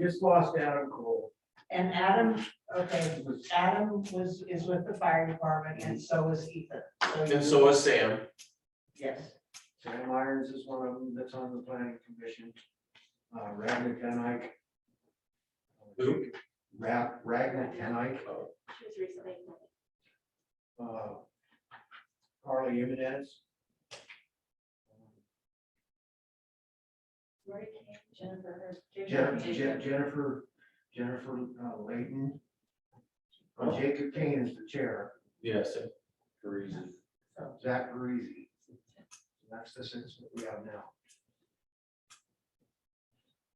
Just lost Adam Cole. And Adam, okay, Adam was, is with the fire department and so is Ethan. And so is Sam. Yes, Sam Irons is one of them that's on the planning commission. Uh, Ragnar Kenike. Who? Ra- Ragnar Kenike, She was recently. appointed. uh, Carly Jimenez. Lori Kane, Jennifer. Jen- Hurd, Jen- Jennifer, Jennifer uh, Layton. Uh, Jacob Kane is the chair, Yes. Zach Parisi. That's the sense that we have now.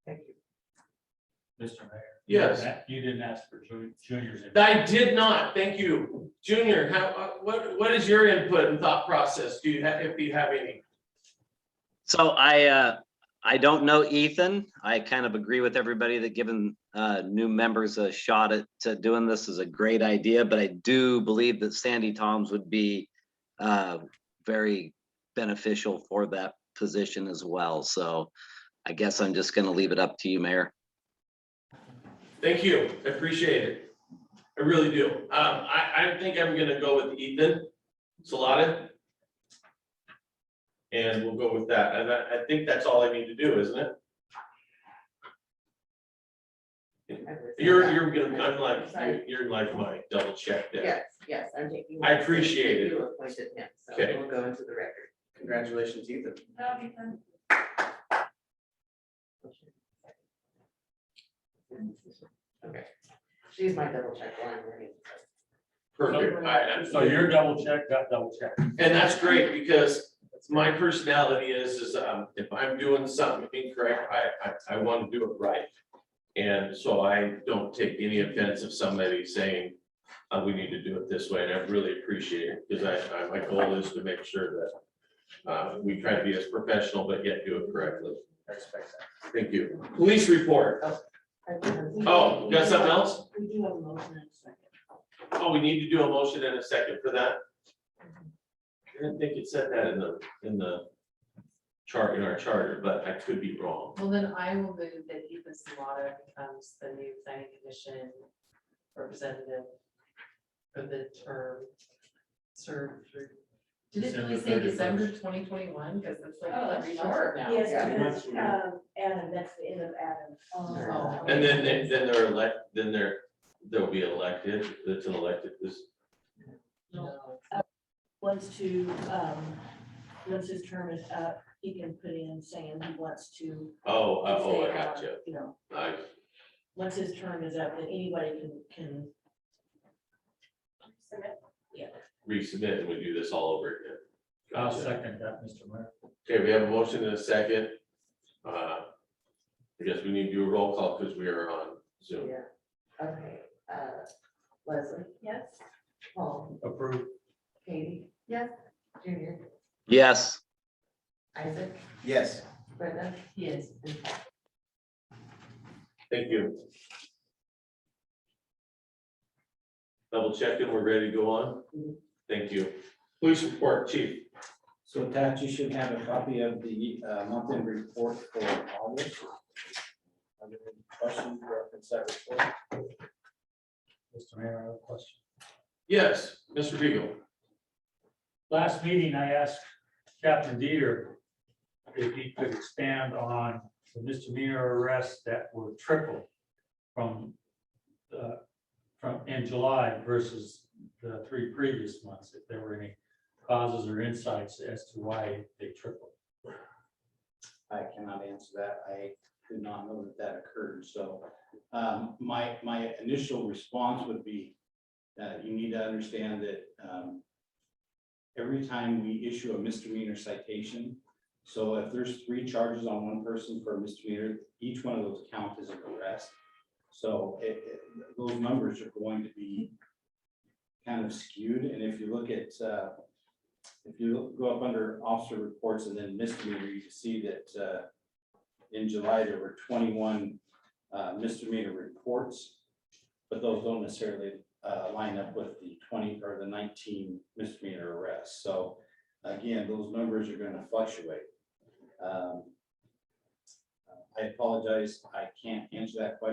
thank you. Mr. Mayor. you didn't Yes. a- You didn't ask for Ju- Junior's. input. I did not, thank you. Junior, how, uh, what, what is your input and thought process? Do you have, if you have any? So I, uh, I don't know Ethan. I kind of agree with everybody that giving, uh, new members a shot at, to doing this is a great idea, but I do believe that Sandy Toms would be, uh, very beneficial for that position as well. So I guess I'm just gonna leave it up to you, Mayor. Thank you, I appreciate it. I really do. Um, I, I think I'm gonna go with Ethan Salada. And we'll go with that. And I, I think that's all I need to do, isn't it? You're, you're gonna, I'm like, you're- you're like my double check there. Yes, yes, I'm taking. I appreciate it. You appointed him, so Okay. we'll go into the record. Congratulations, Ethan. No, Ethan. Okay. She's my double check while I'm reading. Perfect. I, I'm. So your double check, got double check. And that's great because my personality is, is um, if I'm doing something incorrect, I, I, I want to do it right. And so I don't take any offense if somebody saying, uh, we need to do it this way. And I really appreciate it because I, I, my goal is to make sure that uh, we try to be as professional, but yet do it correctly. Thank you. Police report. Oh, got something else? We do have a motion in a second. Oh, we need to do a motion in a second for that. I didn't think it said that in the, in the chart, in our charter, but I could be wrong. Well, then I will move that Ethan Salata becomes the new planning commission representative for the term served through. Did it really say December December twenty twenty-one? Because it's like Oh, that's three months short. from now. Yes, Yeah. that's, um, Adam, that's the end of Adam. Oh. And then, they- then they're elect, then they're, they'll be elected, that's an elected, this, No. Wants to, um, once his term is up, he can put in saying he wants to. oh, oh, oh, say, I got uh, you. You know, I, once his term is up, then anybody can, can, Submit. yeah. resubmit and we do this all over again. I'll Gotcha. second that, Mr. Mayor. Okay, we have a motion and a second. Uh, I guess we need to do a roll call because we are on Zoom. Yeah, okay, uh, Leslie, Yes. Paul, Approved. Katie. Yes. Junior, Yes. Isaac, Yes. Brenda, Yes. and Paul. Thank you. Double checking, we're ready to go on? Thank you. Police report, chief. So Pat, you should have a copy of the uh, monthly report for August. Are there any Questions reference that report? Mr. Mayor, I have a question. Yes, Mr. Beagle. Last meeting, I asked Captain Dieter if he could expand on the misdemeanor arrests that were tripled from, uh, from in July versus the three previous months, if there were any causes or insights as to why they tripled. I cannot answer that. I did not know that that occurred, so um, my, my initial response would be that you need to understand that um, every time we issue a misdemeanor citation, so if there's three charges on one person for a misdemeanor, each one of those count as an arrest. So it, it- those numbers are going to be kind of skewed, and if you look at uh, if you go up under officer reports and then misdemeanor, you can see that uh, in July, there were twenty-one uh, misdemeanor reports. But those don't necessarily uh, line up with the twenty or the nineteen misdemeanor arrests. So again, those numbers are gonna fluctuate. Um, I apologize, I can't answer that question.